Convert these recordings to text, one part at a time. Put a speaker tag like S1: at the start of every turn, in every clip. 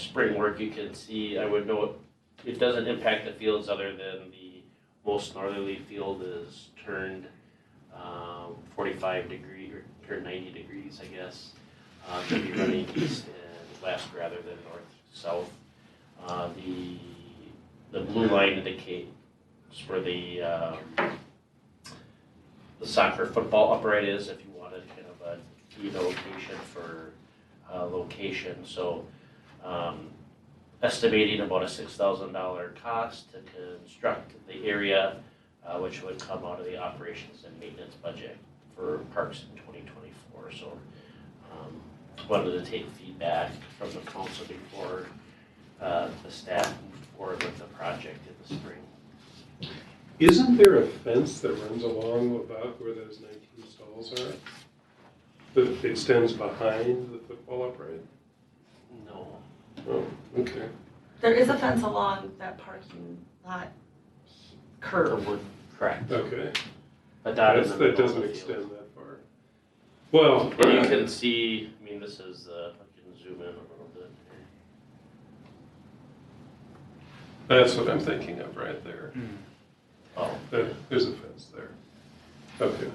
S1: spring work, you can see, I would know it, it doesn't impact the fields other than the most northerly field is turned um, forty-five degree or turned ninety degrees, I guess. Uh, to be running east and west rather than north, south. Uh, the, the blue line indicates where the, uh, the soccer football upright is, if you wanted kind of a key location for, uh, location, so, um, estimating about a six thousand dollar cost to construct the area, uh, which would come out of the operations and maintenance budget for parks in twenty twenty-four, so, um, wanted to take feedback from the council before, uh, the staff moved forward with the project in the spring.
S2: Isn't there a fence that runs along about where those nineteen stalls are? That extends behind the football upright?
S1: No,
S2: Oh, okay.
S3: There is a fence along that parking lot curve.
S1: correct,
S2: Okay.
S1: but not in
S2: That's,
S1: the middle
S2: that
S1: of the
S2: doesn't
S1: field.
S2: extend that far. Well, uh,
S1: And you can see, I mean, this is, uh, I can zoom in a little bit here.
S2: that's what I'm thinking of right there.
S1: Mm-hmm. Oh,
S2: That, there's a fence there. Okay.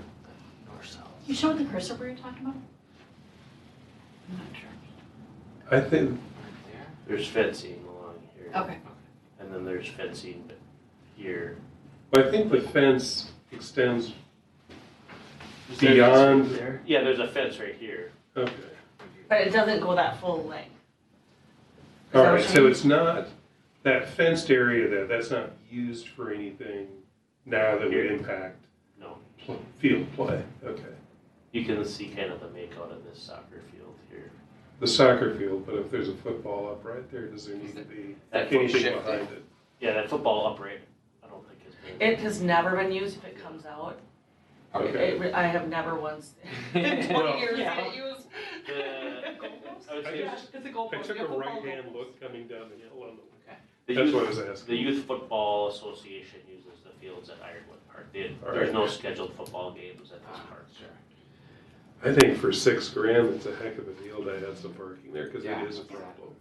S1: north south.
S4: You showed the cursor where you're talking about? I'm not sure.
S2: I think,
S1: There's fencing along here.
S4: Okay.
S1: And then there's fencing b- here.
S2: I think the fence extends,
S1: Is there fencing
S2: Beyond-
S1: There? Yeah, there's a fence right here.
S2: okay.
S3: But it doesn't go that full length. Is that
S2: All
S3: what
S2: right,
S3: you
S2: so
S3: mean?
S2: it's not, that fenced area there, that's not used for anything now that would impact
S1: No,
S2: pl- field play. Okay.
S1: you can see kind of the makeout of this soccer field here.
S2: The soccer field, but if there's a football up right there, does there need to be
S1: That foot
S2: anything
S5: shifted.
S2: behind it?
S1: Yeah, that football upright, I don't think it's been.
S3: It has never been used if it comes out.
S2: Okay.
S3: It- I have never once, in
S2: Well,
S3: twenty years, seen
S1: yeah.
S3: it used.
S1: The- I would say
S2: I
S3: Yeah,
S1: it's-
S2: just-
S3: It's a
S2: I
S3: goalpost.
S2: took
S3: yeah,
S2: a
S3: football
S2: right-hand
S3: goalpost.
S2: look coming down the hill on the,
S1: the
S2: that's
S1: youth-
S2: what I was
S1: The
S2: asking.
S1: Youth Football Association uses the fields at Ironwood Park. They-
S2: All
S1: There's
S2: right.
S1: no scheduled football games at this park.
S2: I think for six grand, it's a heck of a deal to add some parking there, because it
S5: Yeah.
S2: is a problem.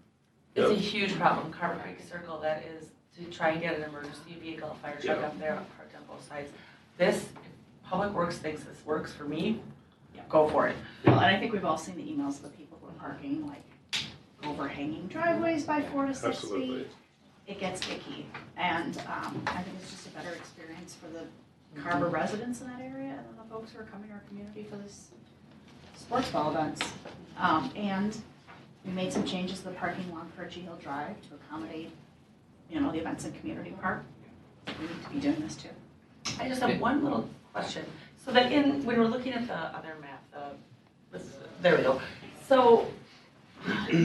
S3: It's a huge problem, Carver Creek Circle, that is to try and get an emergency vehicle, a fire truck
S2: Yeah.
S3: up there, parked on both sides. This, if Public Works thinks this works for me, go for it.
S4: Well, and I think we've all seen the emails of the people who are parking like overhanging driveways by four to six feet.
S2: Absolutely.
S4: It gets icky. And um, I think it's just a better experience for the Carver residents in that area and then the folks who are coming to our community for this sports ball events. Um, And we made some changes to the parking lot for G Hill Drive to accommodate, you know, the events in Community Park. We need to be doing this too.
S3: I just have one little question. So that in, when we're looking at the other map, the, this, there we go. So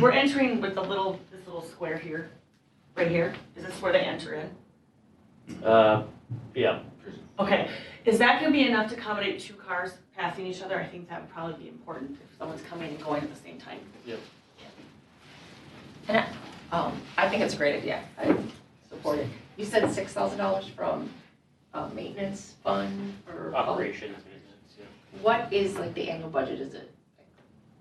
S3: we're entering with the little, this little square here, right here. Is this where they enter in?
S1: Uh, yeah,
S3: Okay, is that gonna be enough to accommodate two cars passing each other? I think that would probably be important if someone's coming and going at the same time.
S1: Yep.
S6: And I, um, I think it's a great idea, I support it. You said six thousand dollars from, uh, maintenance fund or?
S1: operations, maintenance, yeah.
S6: What is like the annual budget, is it like,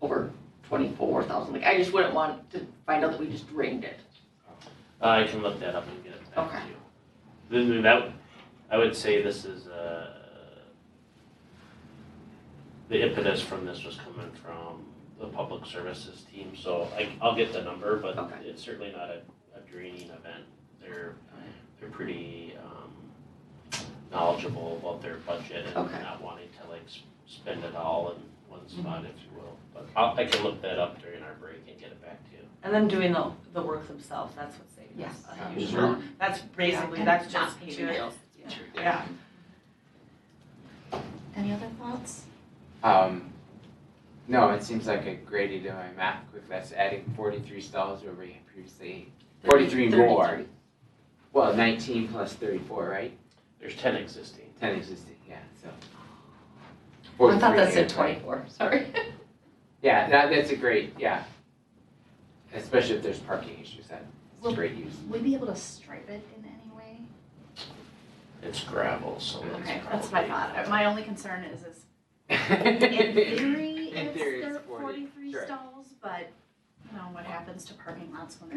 S6: over twenty-four thousand? Like, I just wouldn't want to find out that we just drained it.
S1: I Uh, can look that up and get it back to
S6: Okay.
S1: you. Then then that, I would say this is, uh, the impetus from this was coming from the public services team, so I, I'll get the number, but
S6: Okay.
S1: it's certainly not a, a draining event. They're, they're pretty, um, knowledgeable about their budget and
S6: Okay. Mm-hmm.
S1: not wanting to like s- spend it all in one spot, if you will. But I, I can look that up during our break and get it back to you.
S3: And then doing the, the work themselves, that's what's saving us.
S6: Yes.
S3: a huge amount. That's basically, that's just materials. Yeah.
S4: Any other thoughts?
S5: Um, no, it seems like a great idea. My math quick. That's adding forty-three stalls where we previously. Forty-three more. Well, nineteen plus thirty-four, right?
S1: There's ten existing.
S5: Ten existing, yeah. So.
S6: I
S5: 43
S6: thought that said
S5: there, right?
S6: twenty-four, sorry.
S5: Yeah, that, that's a great, yeah. Especially if there's parking issues, that's a
S4: Well-
S5: great use.
S4: Would we be able to stripe it in any way?
S1: It's gravel, so it's
S4: Okay, that's what I
S1: probably-
S4: thought. My only concern is, is In theory,
S5: In
S4: it's
S5: theory,
S4: thir-
S5: it's 40,
S4: forty-three
S5: sure.
S4: stalls, but, you know, what happens to parking lots when there's